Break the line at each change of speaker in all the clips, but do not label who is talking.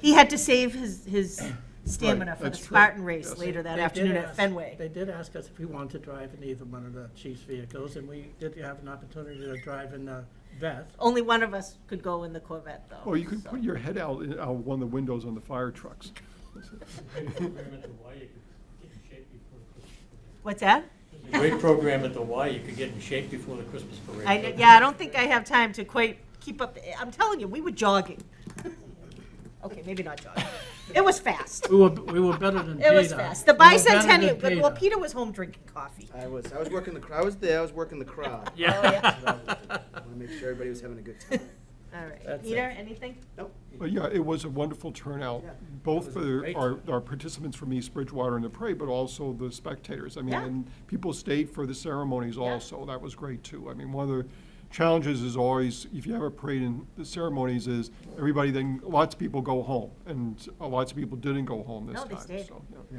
He had to save his, his stamina for the
that's true.
Spartan race
Yes.
later that
They did
afternoon at
ask-
Fenway.
They did ask us if we wanted to drive in either one of the chief's vehicles, and we did have an opportunity to drive in the Veth.
Only one of us could go in the Corvette, though.
Or Oh, you could
so.
put your head out, in- out one of the windows on the fire trucks.
program at the Y, you could get in shape before the Christmas parade.
What's that?
There's a great program at the Y, you could get in shape before the Christmas parade.
I, yeah, I don't think I have time to quite keep up. I'm telling you, we were jogging. Okay, maybe not jogging. It was fast.
We were, we were better than Peter.
It was fast. The
We were better than
bicentennial, but, well, Peter was home drinking coffee.
I was, I was working the, cr- I was there, I was working the crowd.
Oh, yeah.
I want to make sure everybody was having a good time.
All right.
That's
Peter,
it.
anything?
Nope.
But yeah, it was a wonderful turnout,
Yeah.
both for
great
our, our participants from East Bridgewater and the parade, but also the spectators. I mean,
Yeah.
and people stayed for the ceremonies also. That was great too. I mean, one of the challenges is always, if you have a parade and the ceremonies is, everybody then, lots of people go home. And uh, lots of people didn't go home this
No,
time.
they stayed.
so, yeah.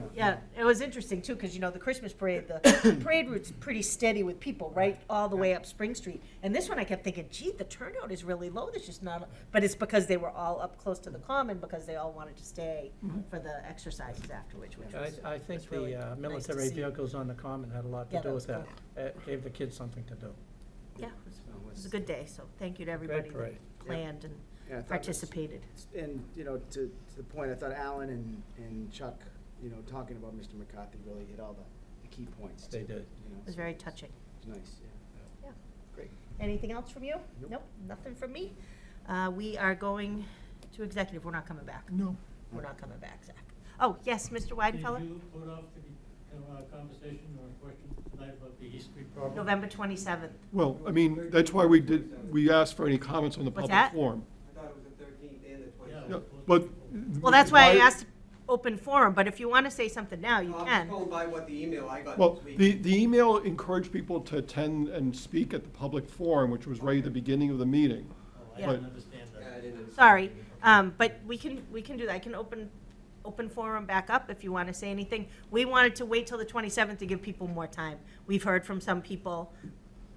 Yeah, it was interesting too, because you know, the Christmas parade, the parade route's pretty steady with people, right, all the way up Spring Street. And this one, I kept thinking, gee, the turnout is really low, there's just not, but it's because they were all up close to the common, because they all wanted to stay
Mm-hmm.
for the exercises afterwards, which was.
I, I think
was really
the uh,
nice to
military
see.
vehicles on the common had a lot
Yeah,
to
that
do
was
with that. It gave the kids something to do.
Yeah, it was a good day, so thank you to everybody that
parade.
planned and
Yeah, I thought it was-
participated.
And, you know, to, to the point, I thought Alan and, and Chuck, you know, talking about Mr. McCarthy really hit all the, the key points.
They
too,
did.
you know,
It was
so
very touching.
It was nice, yeah.
Yeah.
Great.
Anything else from you?
Nope.
Nope, nothing from me. Uh, we are going to executive, we're not coming back.
No.
We're not coming back, Zach. Oh, yes, Mr.
Did
Weidenfeller?
you put off the uh, conversation or question tonight about the East Street problem?
November 27th.
Well, I mean, that's why we did, we asked for any comments on the
What's
public
that?
forum.
I thought it was the thirteenth and the twenty-seventh.
Yeah, But.
Well, that's why I asked open forum, but if you want to say something now, you
I was
can.
told by what the email I got
Well,
this week.
the, the email encouraged people to attend and speak at the public forum, which was right at the beginning of the meeting.
Oh, I
Yeah.
didn't understand
Yeah, I
that.
didn't understand.
Sorry, um, but we can, we can do that. I can open, open forum back up if you want to say anything. We wanted to wait till the 27th to give people more time. We've heard from some people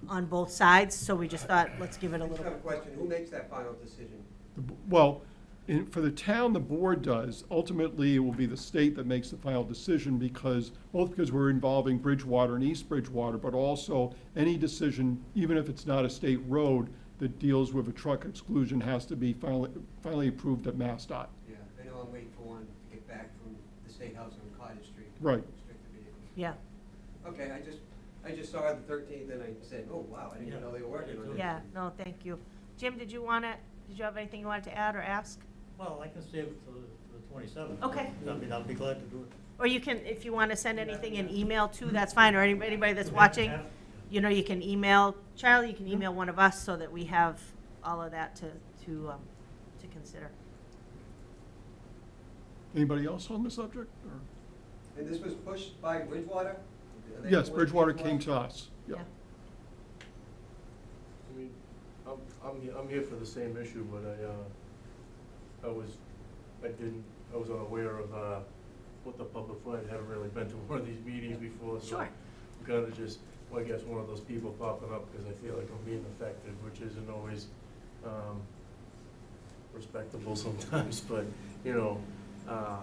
on both sides, so we just thought, let's give it a
I just
little
have a
bit.
question. Who makes that final decision?
The b- Well, in, for the town, the board does. Ultimately, it will be the state that makes the final decision because, both because we're involving Bridgewater and East Bridgewater, but also any decision, even if it's not a state road, that deals with a truck exclusion has to be finally, finally approved at MassDOT.
Yeah, I know I'm waiting for one to get back from the State House on Cottage Street.
Right.
Restricted vehicles.
Yeah,
Okay, I just, I just saw the thirteenth and I said, oh, wow, I didn't
Yeah.
even know they were working on it.
yeah, no, thank you. Jim, did you want to, did you have anything you wanted to add or ask?
Well, I can save it for the- for the twenty-seventh.
Okay.
I mean, I'll be glad to do it.
Or you can, if you want to send anything in email too, that's fine, or any- anybody that's watching, you know, you can email, Charlie, you can email one of us so that we have all of that to, to, um, to consider.
Anybody else on the subject? or-
And this was pushed by Bridgewater? Are they
Yes,
pushing
Bridgewater came to us. Yeah.
I mean, I'm, I'm, he- I'm here for the same issue, but I, uh, I was, I didn't, I was unaware of, uh, what the public forum, I haven't really been to one of these meetings before, so.
Sure.
I'm kinda just, well, I guess one of those people popping up, because I feel like I'm being affected, which isn't always, um, respectable sometimes, but, you know, uh,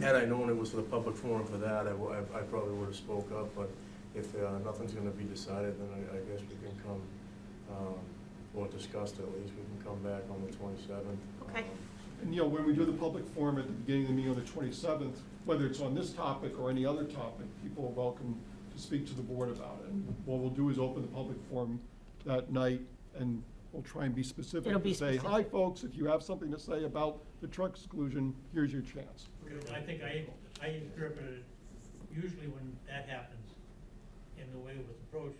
had I known it was for the public forum for that, I, wa- I- I probably would've spoke up, but if, uh, nothing's gonna be decided, then I, I guess we can come, um, or discussed at least, we can come back on the twenty-seventh.
Okay.
And, you know, when we do the public forum at the beginning of the meeting on the twenty-seventh, whether it's on this topic or any other topic, people are welcome to speak to the board about it. And What we'll do is open the public forum that night, and we'll try and be specific.
It'll be
and Say, hi,
specific.
folks, if you have something to say about the truck exclusion, here's your chance.
I think I, I interpreted, it usually when that happens, in the way it was approached,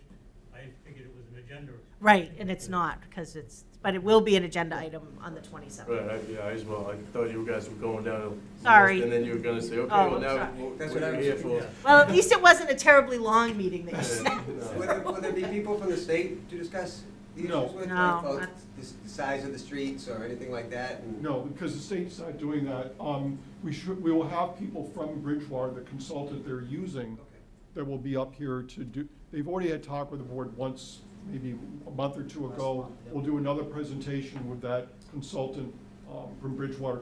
I figured it was an agenda.
Right, and it's not, because it's, but it will be an agenda item on the twenty-seventh.
Right, Um, I, yeah, I as well, I thought you guys were going down. a
Sorry.
list, And then you were gonna say, okay,
Oh,
well, now,
sorry.
what
That's
what
what I
are you
was
here
thinking,
for?
Well, at least it wasn't a terribly long meeting that you
Yeah,
said.
no.
Will there, will there be people from the state to discuss the
No.
issues with?
No,
like, about
that's-
The s- the size of the streets or anything like that? and-
No, because the state's not doing that. Um, we should, we will have people from Bridgewater, the consultant they're using,
Okay.
that will be up here to do, they've already had talk with the board once, maybe a month or two ago. We'll do another presentation with that consultant um, from Bridgewater